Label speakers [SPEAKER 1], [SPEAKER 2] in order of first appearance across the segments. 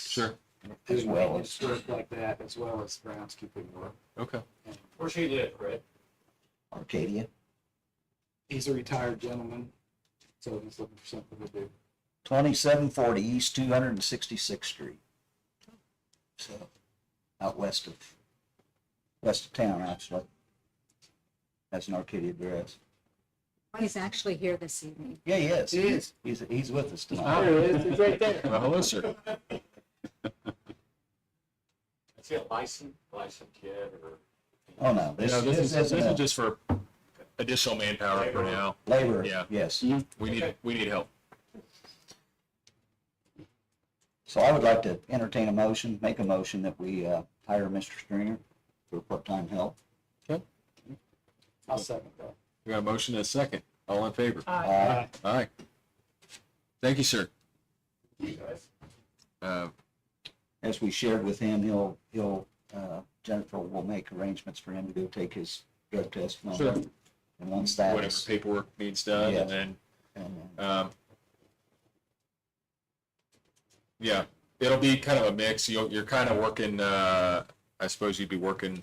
[SPEAKER 1] Sure.
[SPEAKER 2] As
[SPEAKER 3] As well
[SPEAKER 2] well
[SPEAKER 3] as-
[SPEAKER 2] work like that, as well as groundskeeping work.
[SPEAKER 1] Okay.
[SPEAKER 2] And
[SPEAKER 4] Where she live, Brett?
[SPEAKER 3] Arcadia,
[SPEAKER 2] He's a retired gentleman, so he's looking for something to do.
[SPEAKER 3] twenty-seven forty East two hundred and sixty-sixth Street. So, out west of, west of town, actually. That's an Arcadia address.
[SPEAKER 5] He's actually here this evening.
[SPEAKER 3] Yeah, he is.
[SPEAKER 2] He is.
[SPEAKER 3] He's, he's with us
[SPEAKER 4] Oh,
[SPEAKER 3] tonight.
[SPEAKER 2] There it is, it's right there.
[SPEAKER 1] Well, hello, sir.
[SPEAKER 4] Is it licensed, licensed yet or?
[SPEAKER 3] Oh, no, this
[SPEAKER 1] No, this is,
[SPEAKER 3] this
[SPEAKER 1] this
[SPEAKER 3] isn't
[SPEAKER 1] is
[SPEAKER 3] a
[SPEAKER 1] just for additional manpower for now.
[SPEAKER 3] labor,
[SPEAKER 1] yeah.
[SPEAKER 3] yes.
[SPEAKER 1] We need, we need help.
[SPEAKER 3] So I would like to entertain a motion, make a motion that we uh, hire Mr. Stringer for part-time help.
[SPEAKER 2] I'll second that.
[SPEAKER 1] We got a motion and a second. All in favor?
[SPEAKER 3] Uh,
[SPEAKER 1] All right. Thank you, sir.
[SPEAKER 4] You guys?
[SPEAKER 1] Uh,
[SPEAKER 3] As we shared with him, he'll, he'll, uh, Jennifer will make arrangements for him to go take his drug test. and all
[SPEAKER 1] Sure.
[SPEAKER 3] that. And once that
[SPEAKER 1] whatever
[SPEAKER 3] is,
[SPEAKER 1] paperwork needs done
[SPEAKER 3] Yeah.
[SPEAKER 1] and then,
[SPEAKER 3] and, uh,
[SPEAKER 1] um, yeah, it'll be kind of a mix. You'll, you're kind of working, uh, I suppose you'd be working,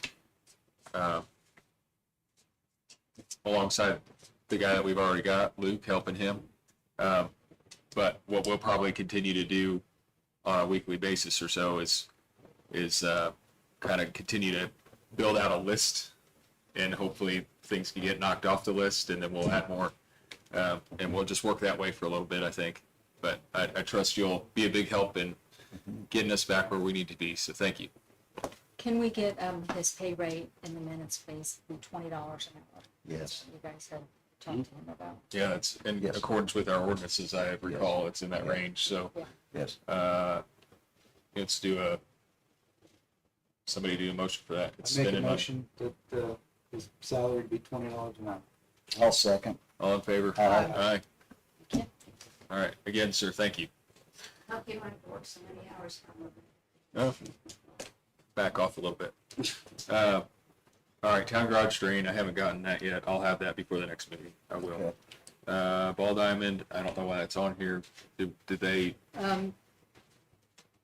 [SPEAKER 1] uh, alongside the guy that we've already got, Luke, helping him. Um, but what we'll probably continue to do on a weekly basis or so is is uh, kind of continue to build out a list, and hopefully things can get knocked off the list, and then we'll add more, Um and we'll just work that way for a little bit, I think. But I, I trust you'll be a big help in getting us back where we need to be. So thank you.
[SPEAKER 5] Can we get um, his pay rate in the minutes, please, from twenty dollars an hour?
[SPEAKER 3] yes,
[SPEAKER 5] You guys have talked
[SPEAKER 3] Hmm?
[SPEAKER 5] to him about.
[SPEAKER 1] Yeah, it's in
[SPEAKER 3] Yes.
[SPEAKER 1] accordance with our ordinances. I recall it's in that
[SPEAKER 3] Yeah.
[SPEAKER 1] range. So
[SPEAKER 3] yes.
[SPEAKER 1] uh, let's do a. Somebody do a motion for that. It's
[SPEAKER 2] I make a
[SPEAKER 1] been in my-
[SPEAKER 2] motion that, uh, his salary be twenty dollars an hour.
[SPEAKER 3] I'll second.
[SPEAKER 1] All in favor?
[SPEAKER 3] Aye.
[SPEAKER 1] Aye. All right. Again, sir, thank you.
[SPEAKER 5] Hope you don't have to work so many hours.
[SPEAKER 1] Oh, Back off a little bit. Uh, all right, town garage drain, I haven't gotten that yet. I'll have that before the next meeting. I will.
[SPEAKER 3] Okay.
[SPEAKER 1] Uh, Ball Diamond, I don't know why that's on here. Did, did they,
[SPEAKER 5] Um,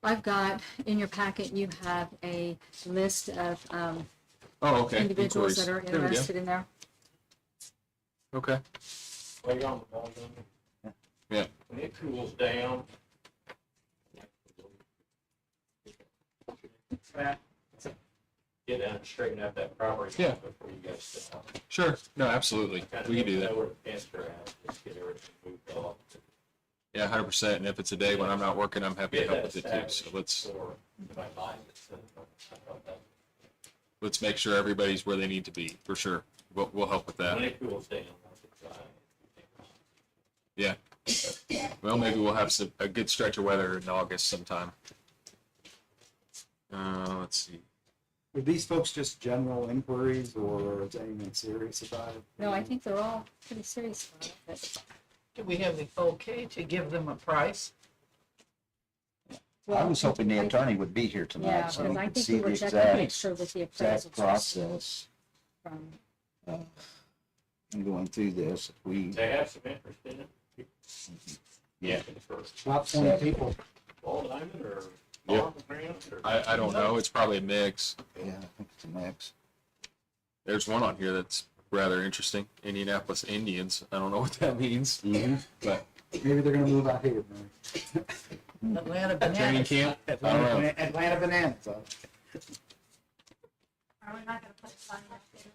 [SPEAKER 5] I've got, in your packet, you have a list of um,
[SPEAKER 1] oh, okay.
[SPEAKER 5] individuals that are
[SPEAKER 1] inquiries. There we go.
[SPEAKER 5] interested in there.
[SPEAKER 1] Okay,
[SPEAKER 4] Way on the ball, don't you?
[SPEAKER 1] yeah,
[SPEAKER 4] When it cools down. Get down and straighten out that property.
[SPEAKER 1] Yeah.
[SPEAKER 4] Before you guys step out.
[SPEAKER 1] sure. No, absolutely. We can do that.
[SPEAKER 4] Know where the fence are at, just get everything moved off.
[SPEAKER 1] Yeah, hundred percent. And if it's a day when I'm not working, I'm happy to
[SPEAKER 4] Get
[SPEAKER 1] help
[SPEAKER 4] that
[SPEAKER 1] with it too. So
[SPEAKER 4] established
[SPEAKER 1] let's,
[SPEAKER 4] before my mind gets in it. uh, I thought that-
[SPEAKER 1] let's make sure everybody's where they need to be, for sure. We'll, we'll help with
[SPEAKER 4] When
[SPEAKER 1] that.
[SPEAKER 4] it cools down. I'll decide.
[SPEAKER 1] Yeah. Well, maybe we'll have some, a good stretch of weather in August sometime. Uh, let's see.
[SPEAKER 2] Were these folks just general inquiries or is anyone serious about it?
[SPEAKER 5] No, I think they're all pretty serious about it, but,
[SPEAKER 6] Do we have the okay to give them a price?
[SPEAKER 3] I
[SPEAKER 5] well,
[SPEAKER 3] was hoping the
[SPEAKER 5] I-
[SPEAKER 3] attorney would be here
[SPEAKER 5] Yeah,
[SPEAKER 3] tonight, so
[SPEAKER 5] because
[SPEAKER 3] we
[SPEAKER 5] I
[SPEAKER 3] could
[SPEAKER 5] think
[SPEAKER 3] see
[SPEAKER 5] we
[SPEAKER 3] the
[SPEAKER 5] were checking to make
[SPEAKER 3] exact,
[SPEAKER 5] sure that the appraisal.
[SPEAKER 3] exact process uh,
[SPEAKER 5] From
[SPEAKER 3] in going through this. We,
[SPEAKER 4] They have some interest in it.
[SPEAKER 3] Yeah.
[SPEAKER 4] For
[SPEAKER 2] About twenty people.
[SPEAKER 4] ball diamond or
[SPEAKER 1] Yeah.
[SPEAKER 4] ball ground or?
[SPEAKER 1] I, I don't know. It's probably a mix.
[SPEAKER 3] yeah, I think it's a mix.
[SPEAKER 1] There's one on here that's rather interesting. Indianapolis Indians. I don't know what that means, but
[SPEAKER 2] Maybe they're gonna move out here, man.
[SPEAKER 6] Atlanta
[SPEAKER 1] training
[SPEAKER 6] Bananas.
[SPEAKER 1] camp. I don't
[SPEAKER 2] Atlanta
[SPEAKER 1] know.
[SPEAKER 2] Bana- Atlanta bananas. uh,
[SPEAKER 7] Are we not gonna put a sign up there?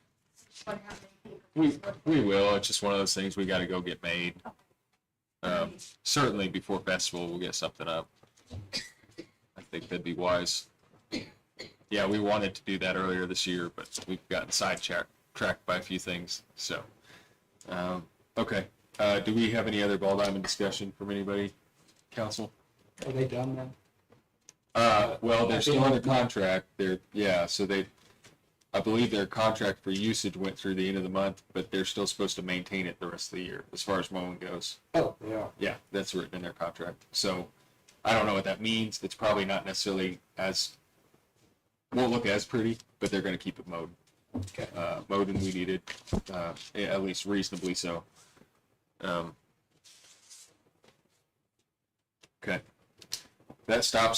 [SPEAKER 7] What happened?
[SPEAKER 1] We we will. It's just one of those things we got to go get made. Um, certainly before festival, we'll get something up. I think that'd be wise. Yeah, we wanted to do that earlier this year, but we've gotten sidetracked tracked by a few things. So, um, okay. Uh, do we have any other ball diamond discussion from anybody, council?
[SPEAKER 2] Are they done now?
[SPEAKER 1] Uh, well, they're still under contract. They're, yeah, so they, I believe their contract for usage went through the end of the month, but they're still supposed to maintain it the rest of the year as far as mowing goes.
[SPEAKER 2] Oh, they are.
[SPEAKER 1] Yeah, that's written in their contract. So I don't know what that means. It's probably not necessarily as, won't look as pretty, but they're going to keep it mowed.
[SPEAKER 2] Okay.
[SPEAKER 1] Uh, mowed and weeded, uh, yeah, at least reasonably so. Um, okay. That stops